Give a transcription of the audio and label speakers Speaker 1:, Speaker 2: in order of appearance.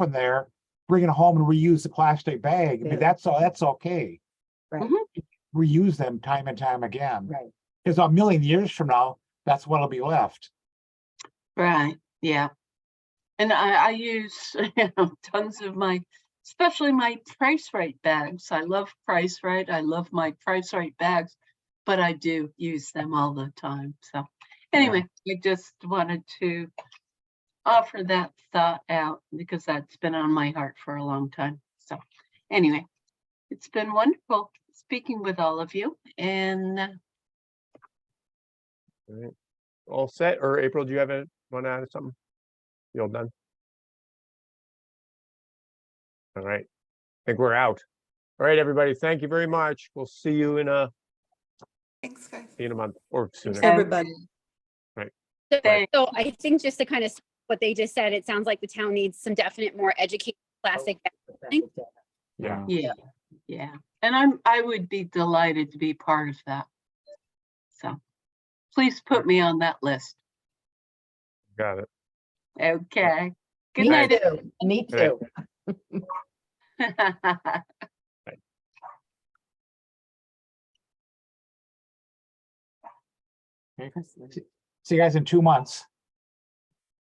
Speaker 1: from there, bring it home and reuse the plastic bag, I
Speaker 2: Yeah.
Speaker 1: mean, that's all, that's okay.
Speaker 2: Right.
Speaker 1: Reuse them time and time again,
Speaker 2: Right,
Speaker 1: because a million years from now, that's what'll be left.
Speaker 3: Right, yeah. And I, I use, you know, tons of my, especially my Price Right bags. I love Price Right. I love my Price Right bags, but I do use them all the time. So anyway, I just wanted to offer that thought out because that's been on my heart for a long time. So anyway, it's been wonderful speaking with all of you and uh,
Speaker 4: all set, or April, do you have a, want to add something? You all done? All right, I think we're out. All right, everybody, thank you very much. We'll see you in a,
Speaker 5: Thanks, guys.
Speaker 4: in a month or sooner.
Speaker 3: Thanks.
Speaker 2: everybody.
Speaker 3: thank
Speaker 6: So I think just to kind of, s- what they just said, it sounds like the town needs some definite more educated plastic. bag. Thank-
Speaker 4: Yeah.
Speaker 3: Yeah, yeah, and I'm, I would be delighted to be part of that. So please put me on that list.
Speaker 4: Got it.
Speaker 3: Okay. Good
Speaker 2: Me
Speaker 3: night.
Speaker 2: too, me
Speaker 4: All right.
Speaker 2: too.
Speaker 3: everyone.
Speaker 1: See you guys in two months.